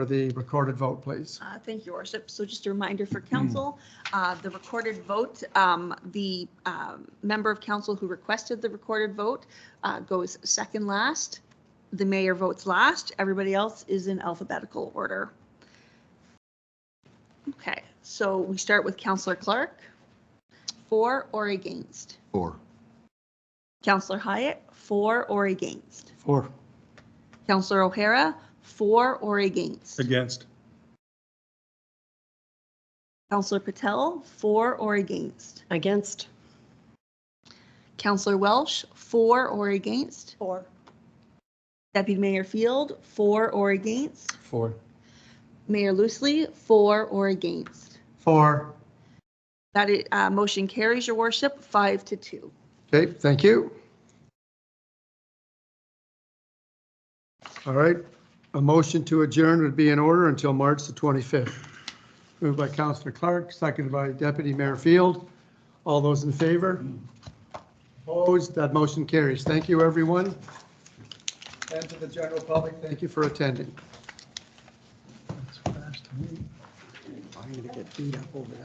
for the recorded vote, please. Uh, Thank you, Your Worship. So just a reminder for council, uh, the recorded vote, um, the um, member of council who requested the recorded vote uh, goes second last. The mayor votes last. Everybody else is in alphabetical order. Okay, so we start with Counselor Clark. For or against? Four. Counselor Hyatt, for or against? Four. Counselor O'Hara, for or against? Against. Counselor Patel, for or against? Against. Counselor Welsh, for or against? Four. Deputy Mayor Field, for or against? Four. Mayor Loosely, for or against? Four. That i- uh, motion carries, Your Worship, five to two. Okay, thank you. All right, a motion to adjourn would be in order until March the 25th. Moved by Counselor Clark, seconded by Deputy Mayor Field. All those in favor? Opposed, that motion carries. Thank you, everyone. And to the general public, thank you for attending. I'm going to get beat up over that.